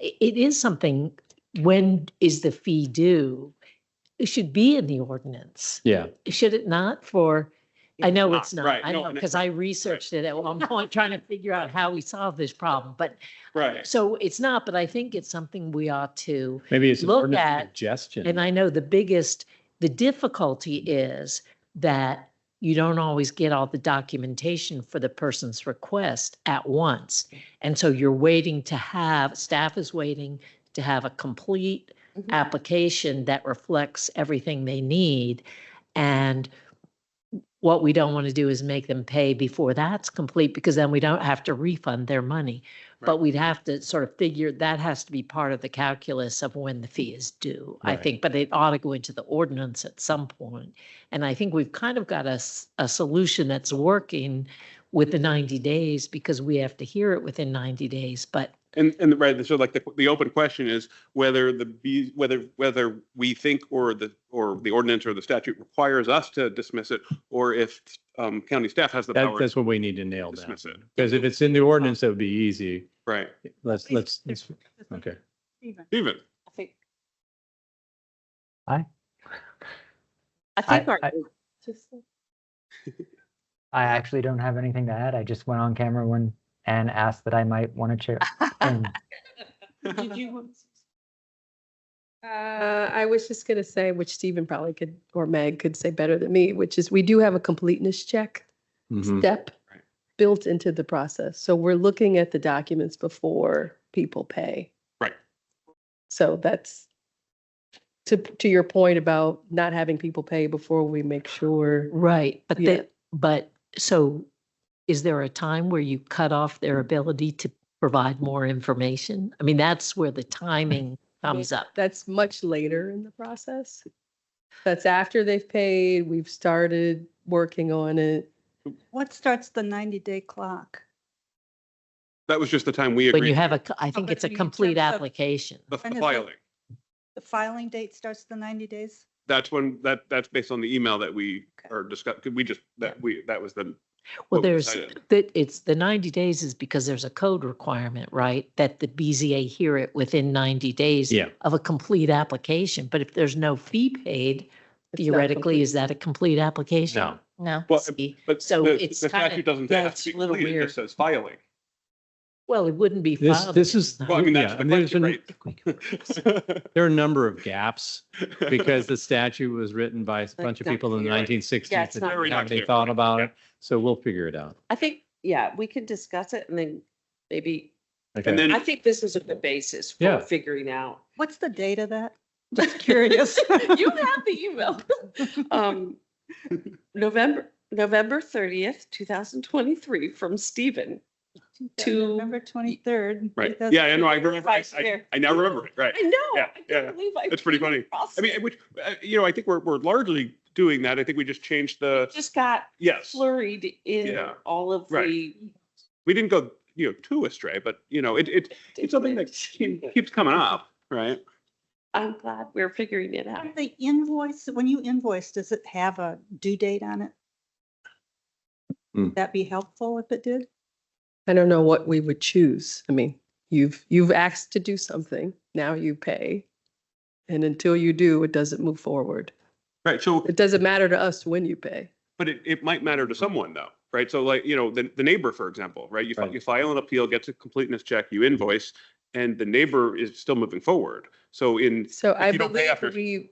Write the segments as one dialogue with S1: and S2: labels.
S1: i- it is something, when is the fee due? It should be in the ordinance,
S2: Yeah.
S1: should it not for, I know
S3: not,
S1: it's not,
S3: right,
S1: I
S3: no,
S1: know,
S3: and it-
S1: because I researched it at one point, trying to figure out how we solve this problem, but
S3: Right.
S1: so it's not, but I think it's something we ought to,
S2: Maybe it's an
S1: Look
S2: ordinance
S1: at- and
S2: suggestion.
S1: I know the biggest, the difficulty is that you don't always get all the documentation for the person's request at once. And so you're waiting to have, staff is waiting to have a complete
S4: Mhm.
S1: application that reflects everything they need. And what we don't want to do is make them pay before that's complete because then we don't have to refund their money. But
S3: Right.
S1: we'd have to sort of figure, that has to be part of the calculus of when the fee is due, I
S2: Right.
S1: think. But it ought to go into the ordinance at some point. And I think we've kind of got a, s- a solution that's working with the 90 days because we have to hear it within 90 days. But
S3: And, and right, so like the, the open question is whether the, B- whether, whether we think or the, or the ordinance or the statute requires us to dismiss it, or if um, county staff has the
S2: That,
S3: power.
S2: that's what we need to nail down.
S3: Dismiss it.
S2: Because if it's in the ordinance, that would be easy.
S3: Right.
S2: Let's, let's, let's- okay.
S3: Even.
S4: I think
S5: Aye.
S4: I think
S5: I-
S4: our.
S5: I-
S4: just-
S5: I actually don't have anything to add. I just went on camera when Anne asked that I might want to chair. and
S4: Did you?
S6: Uh, I was just gonna say, which Stephen probably could, or Meg could say better than me, which is we do have a completeness check
S2: Mhm.
S6: step
S3: Mm-hmm. Right.
S6: built into the process. So we're looking at the documents before people pay.
S3: Right.
S6: So that's to, to your point about not having people pay before we make sure.
S1: Right, but
S6: Yeah.
S1: the, but so is there a time where you cut off their ability to provide more information? I mean, that's where the timing comes up.
S6: That's much later in the process. That's after they've paid, we've started working on it.
S7: What starts the 90-day clock?
S3: That was just the time we
S1: When you
S3: agreed,
S1: have a, co- I think
S7: but
S1: it's a
S7: in
S1: complete
S7: terms of-
S1: application.
S3: the the
S7: when is it?
S3: filing.
S7: The filing date starts the 90 days?
S3: That's when, that, that's based on the email that we
S7: Okay.
S3: are discussing, could we just, that we, that was the. what
S1: Well,
S3: we
S1: there's,
S3: decided.
S1: that it's, the 90 days is because there's a code requirement, right? That the BZA hear it within 90 days
S2: Yeah.
S1: of a complete application. But if there's no fee paid,
S6: It's not
S1: theoretically,
S6: complete.
S1: is that a complete application?
S2: No.
S4: No.
S3: Well,
S1: See?
S3: But
S1: So
S3: the-
S1: it's
S3: The
S1: kinda-
S3: statute doesn't
S1: yeah,
S3: have
S1: it's
S3: to be
S1: a little
S3: completed, it
S1: weird.
S3: just says filing.
S1: Well, it wouldn't be
S2: This,
S1: filed. if
S2: this is.
S1: it's not-
S3: Well, I mean, that's
S2: yeah,
S3: the
S2: and there's
S3: question,
S2: an- There are a number of gaps because the statute was written by a bunch of
S4: not
S2: people in the
S3: clear.
S2: nineteen
S4: Yeah,
S2: sixties.
S4: it's not
S3: Very not
S2: They
S3: clear.
S2: thought about it.
S3: Yep.
S2: So we'll figure it out.
S4: I think, yeah, we can discuss it and then maybe,
S2: Okay.
S3: And then.
S4: I think this is a good basis
S2: Yeah.
S4: for figuring out.
S7: What's the date of that?
S4: Just curious. You have the email. Um, November, November thirtieth, two thousand twenty-three from Stephen. To-
S7: November 23rd.
S3: Right. Yeah, I know. I remember. I,
S4: Vice
S3: I,
S4: Mayor.
S3: I now remember it. Right.
S4: I know.
S3: Yeah,
S4: I can't
S3: yeah.
S4: believe I
S3: That's pretty
S4: came
S3: funny.
S4: across
S3: I mean, which, uh, you know, I think we're, we're largely doing that. I think we just changed the,
S4: Just got
S3: yes,
S4: flurried in
S3: Yeah.
S4: all of
S3: Right.
S4: the.
S3: we didn't go, you know, too astray, but you know, it, it, it's something that keep- keeps coming up, right?
S4: I'm glad we're figuring it out.
S7: And The invoice, when you invoice, does it have a due date on it?
S2: Hmm.
S7: Would That be helpful if it did?
S6: I don't know what we would choose. I mean, you've, you've asked to do something, now you pay. And until you do, it doesn't move forward.
S3: Right. So,
S6: It doesn't matter to us when you pay.
S3: but it, it might matter to someone though, right? So like, you know, the, the neighbor, for example, right? You, fi-
S2: Right.
S3: you file an appeal, gets a completeness check, you invoice, and the neighbor is still moving forward. So in,
S6: So I
S3: you don't pay
S6: believe
S3: after-
S6: we,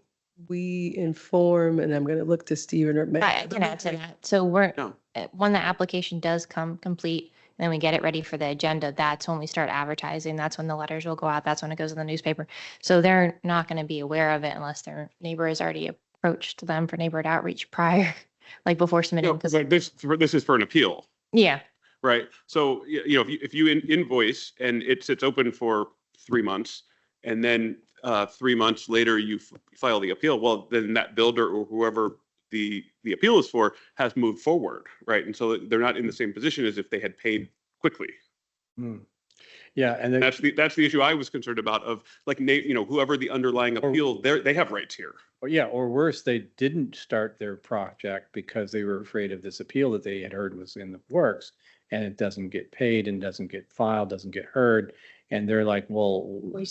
S6: we inform, and I'm going to look to Stephen or Meg.
S8: I I can add to that. So we're,
S3: no,
S8: uh, when the application does come complete, and then we get it ready for the agenda, that's when we start advertising. That's when the letters will go out. That's when it goes in the newspaper. So they're not going to be aware of it unless their neighbor has already approached them for neighborhood outreach prior, like before submitting.
S3: no,
S8: Because,
S3: like this, this is for an appeal.
S8: yeah,
S3: Right. So, y- you know, if you, if you in- invoice and it sits open for three months and then uh, three months later you f- file the appeal, well, then that builder or whoever the, the appeal is for has moved forward, right? And so they're not in the same position as if they had paid quickly.
S2: Hmm. Yeah, and then.
S3: That's the, that's the issue I was concerned about of like, na- you know, whoever the underlying
S2: Or-
S3: appeal, they're, they have rights here.
S2: Or yeah, or worse, they didn't start their project because they were afraid of this appeal that they had heard was in the works. And it doesn't get paid and doesn't get filed, doesn't get heard. And they're like, well,